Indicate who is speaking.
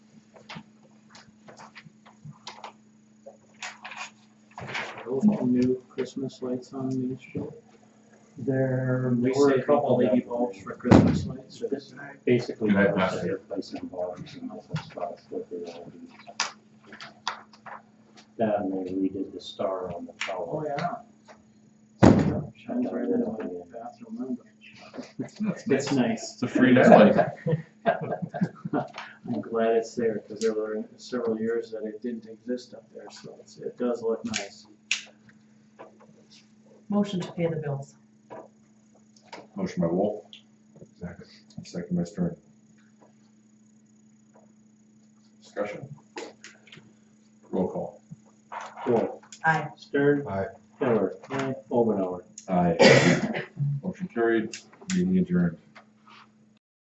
Speaker 1: couple new Christmas lights on Main Street?
Speaker 2: There
Speaker 1: We
Speaker 2: were
Speaker 1: saved
Speaker 2: a couple
Speaker 1: LED
Speaker 2: that
Speaker 1: bulbs for Christmas lights.
Speaker 2: This basically
Speaker 3: Good night,
Speaker 2: was
Speaker 3: Pastor.
Speaker 2: replacing bulbs and all that stuff with the LEDs. That and they redid the star on the tower.
Speaker 1: Oh, yeah. Shines right into my bathroom window. It's nice.
Speaker 3: It's a free nightlife.
Speaker 1: I'm glad it's there, because there were several years that it didn't exist up there, so it's, it does look nice.
Speaker 4: Motion to pay the bills.
Speaker 3: Motion by Wolf. Second by Stern. Discussion. Roll call.
Speaker 2: Cool.
Speaker 4: Aye.
Speaker 2: Stern.
Speaker 3: Aye.
Speaker 2: Miller. Over and over.
Speaker 3: Aye. Motion carried, meeting adjourned.